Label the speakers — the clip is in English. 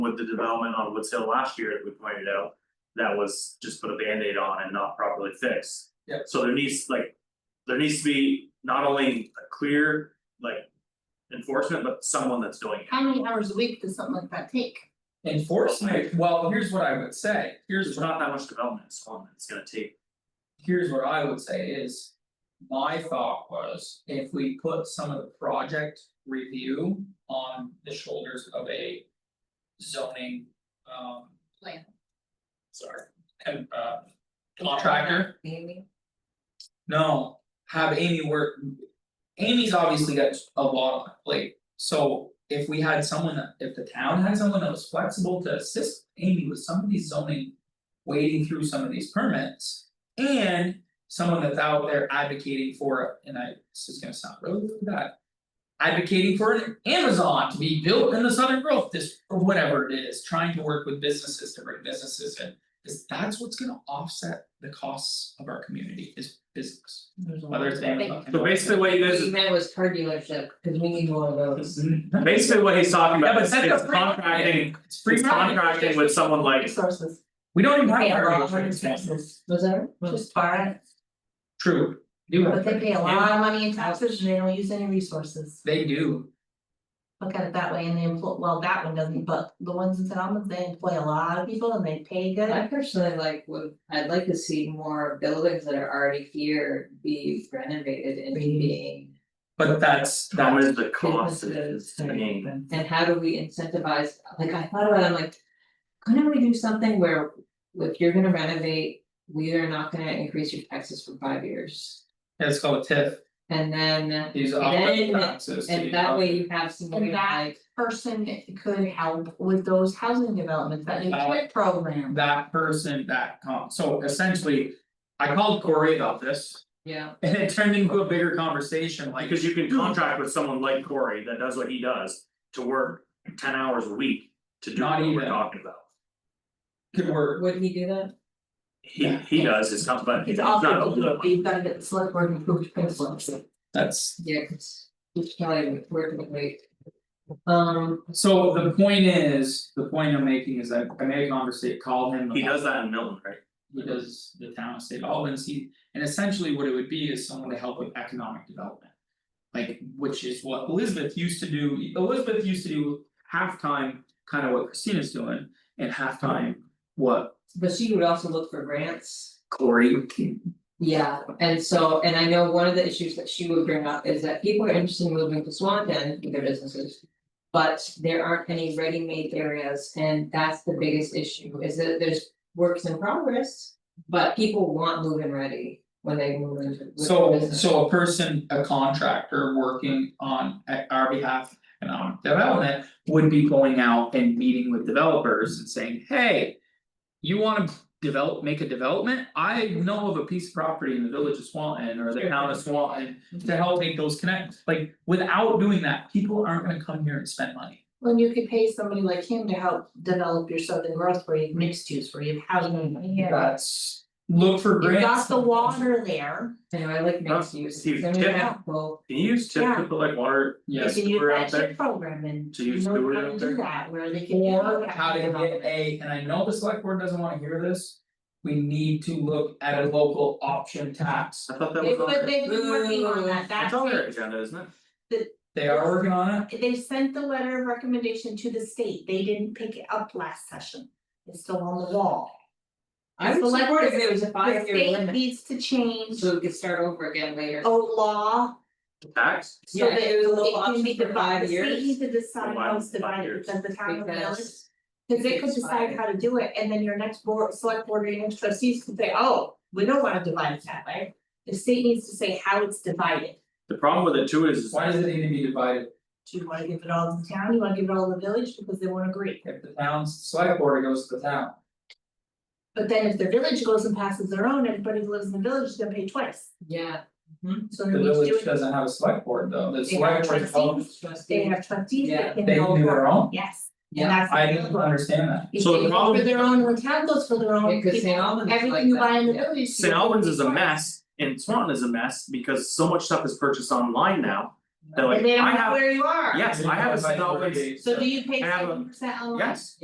Speaker 1: with the development on Woods Hill last year, that we pointed out. That was just put a Band-Aid on and not properly fixed.
Speaker 2: Yeah.
Speaker 1: So there needs like, there needs to be not only a clear like enforcement, but someone that's doing it.
Speaker 3: How many hours a week does something like that take?
Speaker 2: Enforcement, well, here's what I would say, here's
Speaker 1: There's
Speaker 2: what,
Speaker 1: not that much development, it's one that's gonna take,
Speaker 2: here's what I would say is. My thought was, if we put some of the project review on the shoulders of a. Zoning, um.
Speaker 3: Plan.
Speaker 2: Sorry, and uh contractor, no, have Amy work. Amy's obviously got a lot on her plate, so if we had someone that, if the town had someone that was flexible to assist Amy with some of these zoning. Wading through some of these permits and someone that's out there advocating for, and I, this is gonna sound really really bad. Advocating for an Amazon to be built in the Southern Growth District or whatever it is, trying to work with businesses to bring businesses in. Cause that's what's gonna offset the costs of our community is business, whether it's Amazon.
Speaker 1: so basically what you guys.
Speaker 4: What he meant was car dealership, cause we need more of those.
Speaker 1: Mm-hmm. Basically, what he's talking
Speaker 2: Yeah,
Speaker 1: about
Speaker 2: but
Speaker 1: is
Speaker 2: that's
Speaker 1: it's
Speaker 2: a free market.
Speaker 1: contracting,
Speaker 2: It's free
Speaker 1: it's
Speaker 2: market.
Speaker 1: contracting with someone like,
Speaker 4: Resources.
Speaker 2: We don't even have.
Speaker 4: Pay a
Speaker 2: our
Speaker 4: lot of
Speaker 2: insurance company.
Speaker 4: taxes, was there, just bar it,
Speaker 2: True, do have.
Speaker 4: but they pay a lot of money in taxes and they don't use any resources.
Speaker 2: They do,
Speaker 4: Look at it that way and they employ, well, that one doesn't, but the ones in St. Albans, they employ a lot of people and they pay
Speaker 5: I
Speaker 4: good.
Speaker 5: personally like would, I'd like to see more buildings that are already here be renovated into
Speaker 4: Really?
Speaker 5: being.
Speaker 2: but that's
Speaker 1: how
Speaker 2: that
Speaker 1: is the cost is, I mean,
Speaker 5: And how do we incentivize, like I thought about, it, I'm like. Couldn't we do something where if you're gonna renovate, we are not gonna increase your taxes for five years?
Speaker 2: is called TIF,
Speaker 5: And then,
Speaker 2: these
Speaker 5: And
Speaker 2: office
Speaker 5: then-
Speaker 2: taxes.
Speaker 5: and
Speaker 2: these
Speaker 5: that way
Speaker 2: office-
Speaker 5: you have some
Speaker 4: And
Speaker 5: way of
Speaker 4: that-
Speaker 5: like,
Speaker 4: Person could help with those housing developments, that new kid program.
Speaker 2: That person that com, so essentially, I called Corey about this
Speaker 5: yeah,
Speaker 2: and it turned into a bigger conversation like.
Speaker 1: because you can contract with someone like Corey that does what he does. To work ten hours a week to do
Speaker 2: Not
Speaker 1: what we're
Speaker 2: even.
Speaker 1: talking about.
Speaker 2: Could work,
Speaker 5: would he do that?
Speaker 1: He he does his stuff, but he's
Speaker 4: It's
Speaker 1: not.
Speaker 4: awful,
Speaker 1: a-
Speaker 4: but you've gotta get the select board approved principles.
Speaker 2: that's,
Speaker 5: Yeah, 'cause he's probably working late. Um,
Speaker 2: so the point is, the point I'm making is that I made a conversation, called him.
Speaker 1: He
Speaker 2: about-
Speaker 1: does that in Milton, right?
Speaker 2: He does the town of St. Albans, he, and essentially what it would be is someone to help with economic development. Like, which is what Elizabeth used to do, Elizabeth used to do halftime, kind of what Christina's doing, and halftime. What
Speaker 5: but she would also look for grants.
Speaker 2: Corey,
Speaker 5: Yeah, and so, and I know one of the issues that she would bring up is that people are interested in moving to Swanton with their businesses. But there aren't any ready-made areas, and that's the biggest issue, is that there's works in progress. But people want move-in ready when they move into with their
Speaker 2: so
Speaker 5: business.
Speaker 2: so a person, a contractor working on at our behalf. Economic development would be going out and meeting with developers and saying, hey. You wanna develop, make a development? I know of a piece of property in the village of Swanton or the town of Swanton.
Speaker 5: Mm-hmm.
Speaker 2: To help make those connects, like without doing that, people aren't gonna come here and spend money.
Speaker 4: When you could pay somebody like him to help develop your southern growth where you've mixed use, where you've housing.
Speaker 5: Mm-hmm,
Speaker 2: That's. Look for
Speaker 4: You've
Speaker 2: grants.
Speaker 4: got the water there,
Speaker 5: Anyway, I like mixed use,
Speaker 1: Steve,
Speaker 5: I mean,
Speaker 1: yeah.
Speaker 5: yeah, well,
Speaker 1: Can you use tip
Speaker 4: Yeah.
Speaker 1: to put like water?
Speaker 4: you
Speaker 2: Yes,
Speaker 4: can use
Speaker 1: we're out
Speaker 4: that
Speaker 1: there.
Speaker 4: chip program and
Speaker 1: To use
Speaker 4: you know
Speaker 1: sewer
Speaker 4: how
Speaker 1: out
Speaker 4: to
Speaker 1: there.
Speaker 4: do that, where they can.
Speaker 2: Or
Speaker 4: do
Speaker 2: how to get a, and I know the select board doesn't wanna hear this. We need to look at a local option tax.
Speaker 1: I thought that
Speaker 4: They
Speaker 1: was
Speaker 4: put,
Speaker 1: on there.
Speaker 4: they've been working on that,
Speaker 1: That's on their
Speaker 4: that's
Speaker 1: agenda, isn't it?
Speaker 2: They are working on it.
Speaker 4: it, they sent the letter of recommendation to the state, they didn't pick it up last session. It's still on the wall,
Speaker 5: I
Speaker 4: It's
Speaker 5: would
Speaker 4: like
Speaker 5: support if
Speaker 4: the-
Speaker 5: there was a
Speaker 4: the
Speaker 5: five-year
Speaker 4: state
Speaker 5: limit,
Speaker 4: needs to change
Speaker 5: so we could start over again later.
Speaker 4: a law
Speaker 1: Tax,
Speaker 4: so
Speaker 5: Yeah,
Speaker 4: that
Speaker 5: if it was a local
Speaker 4: it can
Speaker 5: option
Speaker 4: be
Speaker 5: for five
Speaker 4: divided, the
Speaker 5: years.
Speaker 4: state needs to decide
Speaker 1: Why
Speaker 4: how it's
Speaker 1: five
Speaker 4: divided,
Speaker 1: years?
Speaker 4: because the town of the village.
Speaker 5: Because
Speaker 4: Cause they
Speaker 5: If
Speaker 4: could
Speaker 5: it's
Speaker 4: decide
Speaker 5: divided.
Speaker 4: how to do it, and then your next board, select board or your next trustees could say, oh, we don't wanna divide it that way. The state needs to say how it's divided,
Speaker 1: the problem with it too is is
Speaker 2: Why does it need to be divided?
Speaker 4: do you wanna give it all to the town, you wanna give it all to the village, because they won't agree.
Speaker 2: If the town's select board goes to the town,
Speaker 4: But then if the village goes and passes their own, everybody who lives in the village is gonna pay twice,
Speaker 5: Yeah.
Speaker 4: so
Speaker 2: the
Speaker 4: they need to do
Speaker 2: village
Speaker 4: it,
Speaker 2: doesn't have a select board though, the
Speaker 4: They
Speaker 2: select
Speaker 4: have
Speaker 2: board
Speaker 4: trustees. they
Speaker 5: Trustee.
Speaker 4: have trustees
Speaker 5: Yeah,
Speaker 4: that can
Speaker 2: they
Speaker 4: all
Speaker 2: can do their own?
Speaker 4: Yes,
Speaker 5: Yeah.
Speaker 4: and that's.
Speaker 2: I didn't understand that.
Speaker 4: If
Speaker 1: So the
Speaker 4: they go
Speaker 1: problem-
Speaker 4: for their own, when town goes for their own,
Speaker 5: Because St.
Speaker 4: people-
Speaker 5: Albans is like
Speaker 4: everything you
Speaker 5: that,
Speaker 4: buy in the
Speaker 5: yeah.
Speaker 4: village. you
Speaker 1: St.
Speaker 4: pay
Speaker 1: Albans is a
Speaker 4: twice.
Speaker 1: mess and Swanton is a mess because so much stuff is purchased online now. They're
Speaker 4: And
Speaker 1: like,
Speaker 4: they
Speaker 1: I
Speaker 4: don't know
Speaker 1: have,
Speaker 4: where you are.
Speaker 1: yes, I have a St. Albans,
Speaker 4: So do you pay
Speaker 1: I have a-
Speaker 4: seven percent online?
Speaker 1: yes.